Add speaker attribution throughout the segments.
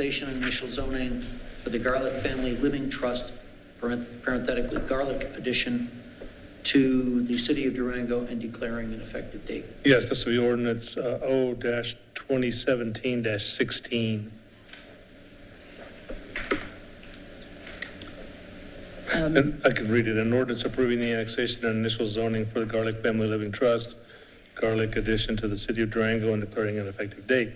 Speaker 1: Station and initial zoning for the Garlic Family Living Trust, parent- parenthetically Garlic Addition, to the city of Durango and declaring an effective date.
Speaker 2: Yes, this will be ordinance uh, O-2017-16. And I can read it. An ordinance approving the annexation and initial zoning for the Garlic Family Living Trust, Garlic addition to the city of Durango and declaring an effective date.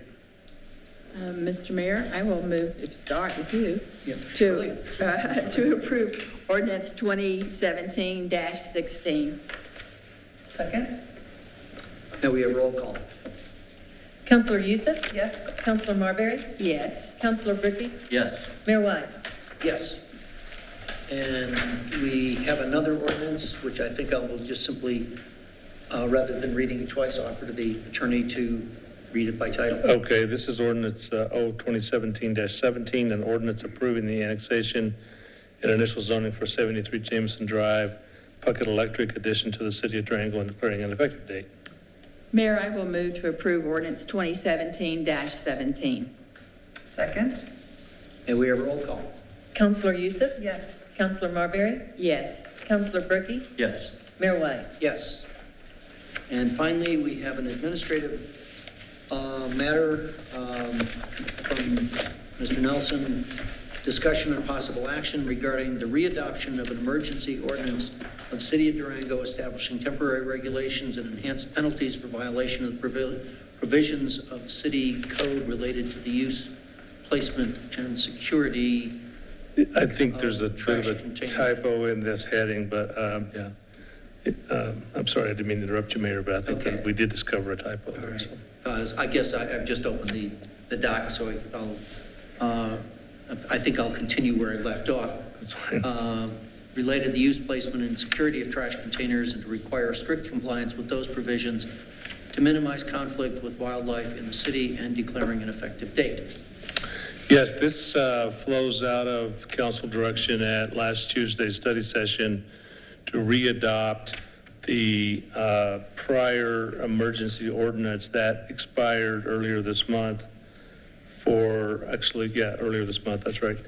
Speaker 3: Um, Mr. Mayor, I will move, to start with you,
Speaker 1: Yeah,
Speaker 3: to, uh, to approve ordinance 2017-16.
Speaker 4: Second?
Speaker 1: Now we have roll call.
Speaker 5: Counselor Youssef?
Speaker 4: Yes.
Speaker 5: Counselor Marbury?
Speaker 3: Yes.
Speaker 5: Counselor Bricky?
Speaker 1: Yes.
Speaker 5: Mayor White?
Speaker 1: Yes. And we have another ordinance, which I think I will just simply, uh, rather than reading it twice, offer to the attorney to read it by title.
Speaker 2: Okay, this is ordinance uh, O-2017-17, an ordinance approving the annexation and initial zoning for 73 Jameson Drive, Puckett Electric addition to the city of Durango and declaring an effective date.
Speaker 3: Mayor, I will move to approve ordinance 2017-17.
Speaker 4: Second?
Speaker 1: And we have roll call.
Speaker 5: Counselor Youssef?
Speaker 4: Yes.
Speaker 5: Counselor Marbury?
Speaker 3: Yes.
Speaker 5: Counselor Bricky?
Speaker 1: Yes.
Speaker 5: Mayor White?
Speaker 1: Yes. And finally, we have an administrative uh, matter um, from Mr. Nelson, discussion and possible action regarding the readoption of an emergency ordinance of the City of Durango establishing temporary regulations and enhanced penalties for violation of the provi- provisions of the city code related to the use, placement, and security.
Speaker 2: I think there's a
Speaker 1: Uh,
Speaker 2: bit of
Speaker 1: trash
Speaker 2: a
Speaker 1: container.
Speaker 2: typo in this heading, but, um, yeah. It, um, I'm sorry, I didn't mean to interrupt you, Mayor, but I think
Speaker 1: Okay.
Speaker 2: that we did discover a typo
Speaker 1: All
Speaker 2: there,
Speaker 1: right.
Speaker 2: so.
Speaker 1: Uh, I guess I- I've just opened the, the doc, so I- I'll, uh, I think I'll continue where I left off.
Speaker 2: That's fine.
Speaker 1: Um, Related to the use, placement, and security of trash containers and to require strict compliance with those provisions to minimize conflict with wildlife in the city and declaring an effective date.
Speaker 2: Yes, this uh, flows out of council direction at last Tuesday's study session to readopt the uh, prior emergency ordinance that expired earlier this month for, actually, yeah, earlier this month, that's right,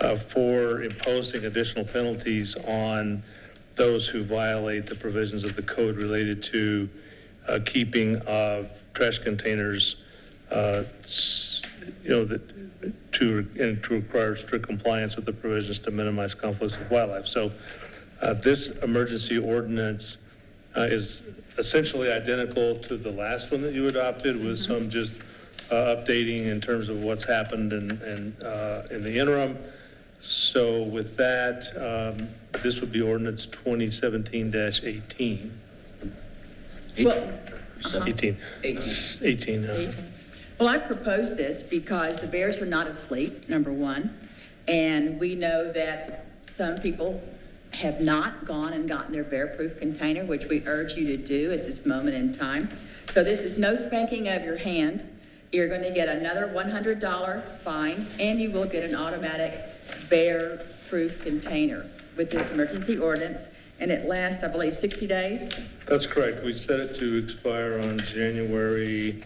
Speaker 2: uh, for imposing additional penalties on those who violate the provisions of the code related to uh, keeping of trash containers, uh, s- you know, that, to, and to require strict compliance with the provisions to minimize conflicts with wildlife. So uh, this emergency ordinance uh, is essentially identical to the last one that you adopted with some just uh, updating in terms of what's happened and, and uh, in the interim. So with that, um, this would be ordinance 2017-18.
Speaker 3: Well,
Speaker 2: 18.
Speaker 1: Eighteen.
Speaker 2: 18, uh,
Speaker 3: Well, I propose this because the bears are not asleep, number one, and we know that some people have not gone and gotten their bear-proof container, which we urge you to do at this moment in time. So this is no spanking of your hand. You're going to get another $100 fine, and you will get an automatic bear-proof container with this emergency ordinance, and it lasts, I believe, 60 days.
Speaker 2: That's correct. We set it to expire on January,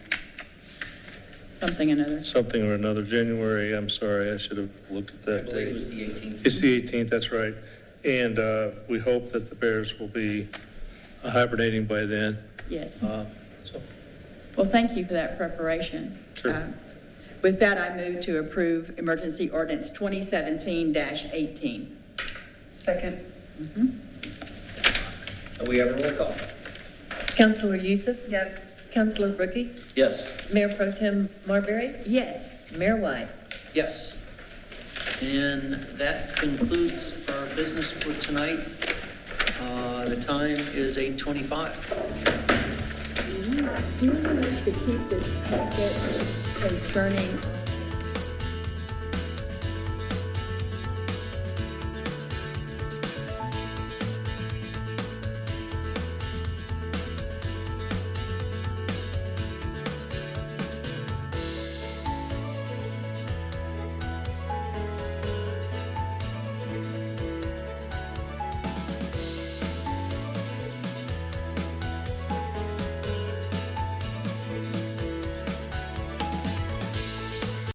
Speaker 3: Something another.
Speaker 2: something or another, January, I'm sorry, I should have looked at
Speaker 1: I
Speaker 2: that
Speaker 1: believe it
Speaker 2: date.
Speaker 1: was the 18th.
Speaker 2: It's the 18th, that's right. And uh, we hope that the bears will be hibernating by then.
Speaker 3: Yes.
Speaker 2: Uh, So
Speaker 3: Well, thank you for that preparation.
Speaker 2: Sure.
Speaker 3: Um, With that, I move to approve emergency ordinance 2017-18.
Speaker 4: Second?
Speaker 1: And we have a roll call.
Speaker 5: Counselor Youssef?
Speaker 4: Yes.
Speaker 5: Counselor Bricky?
Speaker 1: Yes.
Speaker 5: Mayor Pro Tem Marbury?
Speaker 3: Yes.
Speaker 5: Mayor White?
Speaker 1: Yes. And that concludes our business for tonight. Uh, The time is 8:25.
Speaker 3: Do you want us to keep this packet concerning